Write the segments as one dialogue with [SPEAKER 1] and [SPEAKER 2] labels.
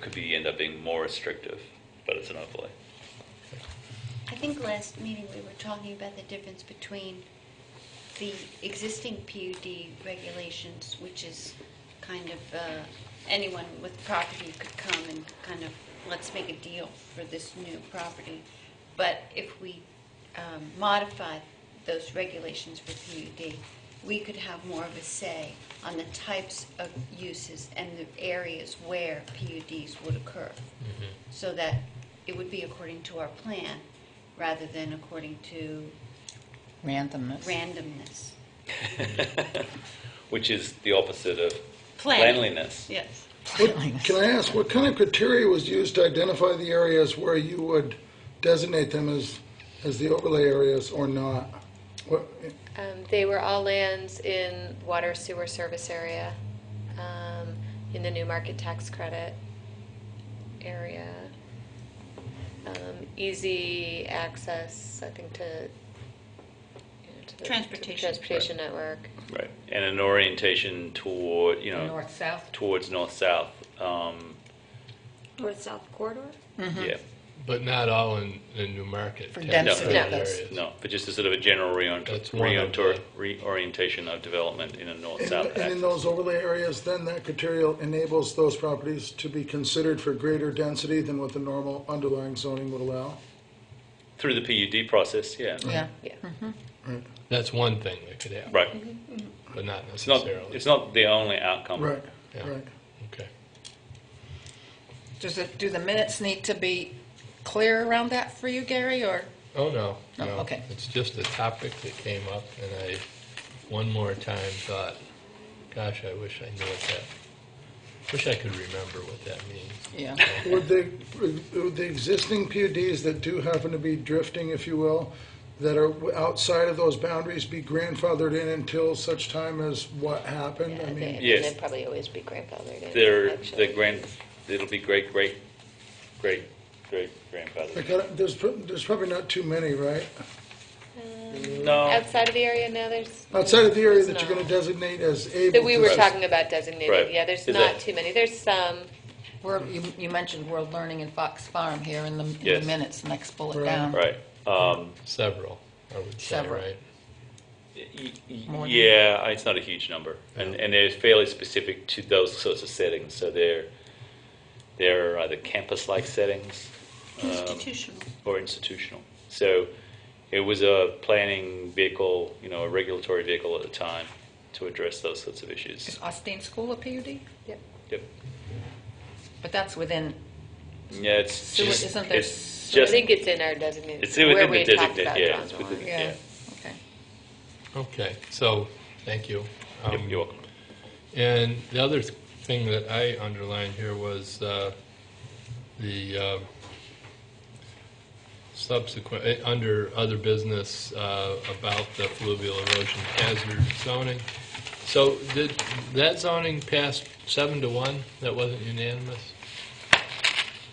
[SPEAKER 1] could be, end up being more restrictive, but it's an overlay.
[SPEAKER 2] I think last meeting we were talking about the difference between the existing PUD regulations, which is kind of, uh, anyone with property could come and kind of, let's make a deal for this new property. But if we um, modify those regulations for PUD, we could have more of a say on the types of uses and the areas where PUDs would occur so that it would be according to our plan rather than according to
[SPEAKER 3] Randomness.
[SPEAKER 2] randomness.
[SPEAKER 1] Which is the opposite of
[SPEAKER 2] Plan.
[SPEAKER 1] planliness.
[SPEAKER 2] Yes.
[SPEAKER 3] Randomness.
[SPEAKER 4] Can I ask, what kind of criteria was used to identify the areas where you would designate them as, as the overlay areas or not? What,
[SPEAKER 5] Um, They were all lands in water sewer service area, um, in the new market tax credit area. Um, Easy access, I think, to, you know, to the.
[SPEAKER 2] Transportation.
[SPEAKER 5] Transportation network.
[SPEAKER 1] Right. And an orientation toward, you know,
[SPEAKER 3] North-south.
[SPEAKER 1] towards north-south. Um,
[SPEAKER 6] north-south corridor?
[SPEAKER 3] Mm-hmm.
[SPEAKER 1] Yeah.
[SPEAKER 7] But not all in, in New Market.
[SPEAKER 3] For
[SPEAKER 7] tax
[SPEAKER 1] density
[SPEAKER 7] credit
[SPEAKER 5] No.
[SPEAKER 7] areas.
[SPEAKER 1] No, but just a sort of a general reorient-
[SPEAKER 7] That's one of
[SPEAKER 1] reorientor-
[SPEAKER 7] the-
[SPEAKER 1] reorientation of development in a
[SPEAKER 4] and,
[SPEAKER 1] north-south
[SPEAKER 4] and in
[SPEAKER 1] axis.
[SPEAKER 4] those overlay areas, then that criteria enables those properties to be considered for greater density than what the normal underlying zoning would allow?
[SPEAKER 1] Through the PUD process, yeah.
[SPEAKER 3] Yeah.
[SPEAKER 5] Yeah.
[SPEAKER 7] That's one thing that could happen,
[SPEAKER 1] Right.
[SPEAKER 3] Mm-hmm.
[SPEAKER 7] but not
[SPEAKER 1] It's not,
[SPEAKER 7] necessarily.
[SPEAKER 1] it's not the only outcome.
[SPEAKER 4] Right,
[SPEAKER 7] Yeah.
[SPEAKER 4] right.
[SPEAKER 7] Okay.
[SPEAKER 3] Does it, do the minutes need to be clear around that for you, Gary, or?
[SPEAKER 7] Oh, no,
[SPEAKER 3] No,
[SPEAKER 7] no.
[SPEAKER 3] okay.
[SPEAKER 7] It's just a topic that came up, and I, one more time, thought, gosh, I wish I knew what that, wish I could remember what that means.
[SPEAKER 3] Yeah.
[SPEAKER 4] Would the, would the existing PUDs that do happen to be drifting, if you will, that are outside of those boundaries be grandfathered in until such time as what happened? I
[SPEAKER 5] Yeah,
[SPEAKER 4] mean,
[SPEAKER 5] they-
[SPEAKER 1] Yes.
[SPEAKER 5] They'd probably always be grandfathered in.
[SPEAKER 1] They're,
[SPEAKER 5] actually.
[SPEAKER 1] the grand, it'll be great, great, great, great grandfather.
[SPEAKER 4] like, I don't- there's, pro- there's probably not too many, right?
[SPEAKER 1] No,
[SPEAKER 5] Outside of the area, now there's.
[SPEAKER 4] Outside of the area
[SPEAKER 5] there's
[SPEAKER 4] that you're gonna
[SPEAKER 5] not.
[SPEAKER 4] designate as able to.
[SPEAKER 5] That we were
[SPEAKER 1] Right.
[SPEAKER 5] talking about
[SPEAKER 1] Right.
[SPEAKER 5] designated, yeah, there's
[SPEAKER 1] Is
[SPEAKER 5] not
[SPEAKER 1] that-
[SPEAKER 5] too many, there's some,
[SPEAKER 3] We're, you, you mentioned World Learning and Fox Farm here in the, in the
[SPEAKER 1] Yes.
[SPEAKER 3] minutes, next bullet
[SPEAKER 4] Right.
[SPEAKER 3] down.
[SPEAKER 1] right. Um,
[SPEAKER 7] Several, I would say,
[SPEAKER 3] Several.
[SPEAKER 7] right?
[SPEAKER 1] y- y-
[SPEAKER 3] More than-
[SPEAKER 1] Yeah, it's not a huge number. And,
[SPEAKER 7] Yeah.
[SPEAKER 1] and they're fairly specific to those sorts of settings. So they're, they're either campus-like settings um,
[SPEAKER 2] Institutional.
[SPEAKER 1] or institutional. So it was a planning vehicle, you know, a regulatory vehicle at the time to address those sorts of
[SPEAKER 3] Is
[SPEAKER 1] issues.
[SPEAKER 3] Austin School a PUD?
[SPEAKER 5] yep.
[SPEAKER 1] Yep.
[SPEAKER 3] But that's within,
[SPEAKER 1] Yeah, it's
[SPEAKER 3] So
[SPEAKER 1] just,
[SPEAKER 3] isn't there
[SPEAKER 1] it's
[SPEAKER 5] I
[SPEAKER 1] just,
[SPEAKER 5] think it's in our designated.
[SPEAKER 1] it's within the
[SPEAKER 5] Where we
[SPEAKER 1] designate,
[SPEAKER 5] talked
[SPEAKER 1] yeah,
[SPEAKER 5] about
[SPEAKER 1] it's
[SPEAKER 5] drawing the
[SPEAKER 1] within,
[SPEAKER 5] line.
[SPEAKER 1] yeah.
[SPEAKER 3] yeah, okay.
[SPEAKER 7] Okay, so, thank you.
[SPEAKER 1] Yep,
[SPEAKER 7] Um,
[SPEAKER 1] You're welcome.
[SPEAKER 7] And the other th- thing that I underlined here was uh, the uh, subsequent, eh, under other business uh, about the fluvial erosion hazard zoning. So did that zoning pass seven to one? That wasn't unanimous?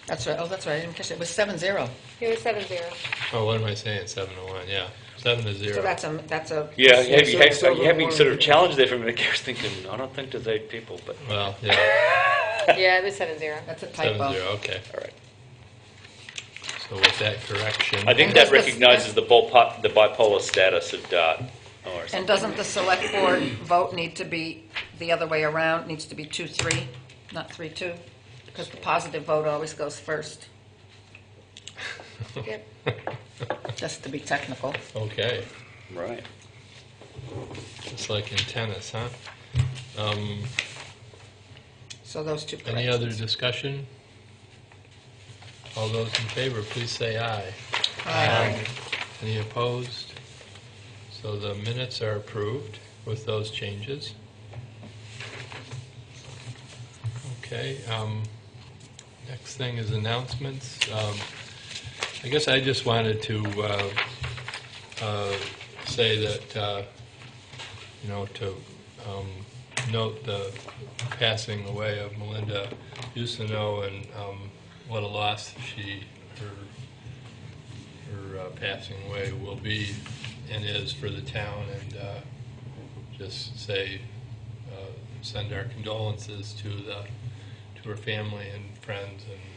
[SPEAKER 3] That's right, oh, that's right, I didn't catch it, it was seven zero.
[SPEAKER 5] It was seven zero.
[SPEAKER 7] Oh, what am I saying, seven to one, yeah, seven to zero.
[SPEAKER 3] So that's a, that's a.
[SPEAKER 1] Yeah, you have, you have,
[SPEAKER 4] so
[SPEAKER 1] you have me
[SPEAKER 4] the
[SPEAKER 1] sort
[SPEAKER 4] one-
[SPEAKER 1] of challenged there for a minute. I was thinking, I don't think there's eight people, but
[SPEAKER 7] Well, yeah,
[SPEAKER 5] Yeah, it was seven zero.
[SPEAKER 3] That's a
[SPEAKER 7] seven
[SPEAKER 3] typo.
[SPEAKER 7] zero, okay.
[SPEAKER 1] all right.
[SPEAKER 7] So with that correction.
[SPEAKER 1] I think
[SPEAKER 3] that's
[SPEAKER 1] that
[SPEAKER 3] the-
[SPEAKER 1] recognizes the bipolar, the bipolar status of DART or
[SPEAKER 3] And
[SPEAKER 1] something.
[SPEAKER 3] doesn't the select board vote need to be the other way around, needs to be two, three, not three, two? Because the positive vote always goes first,
[SPEAKER 5] Yep.
[SPEAKER 3] just to be technical.
[SPEAKER 7] Okay.
[SPEAKER 1] Right.
[SPEAKER 7] It's like in tennis, huh? Um,
[SPEAKER 3] So those two corrections.
[SPEAKER 7] Any other discussion? All those in favor, please say aye. Aye. Any opposed? So the minutes are approved with those changes. Okay, um, next thing is announcements. Um, I guess I just wanted to uh, uh, say that, uh, you know, to um, note the passing away of Melinda Usino and um, what a loss she, her, her uh, passing away will be and is for the town, and uh, just say, uh, send our condolences to the, to her family and friends and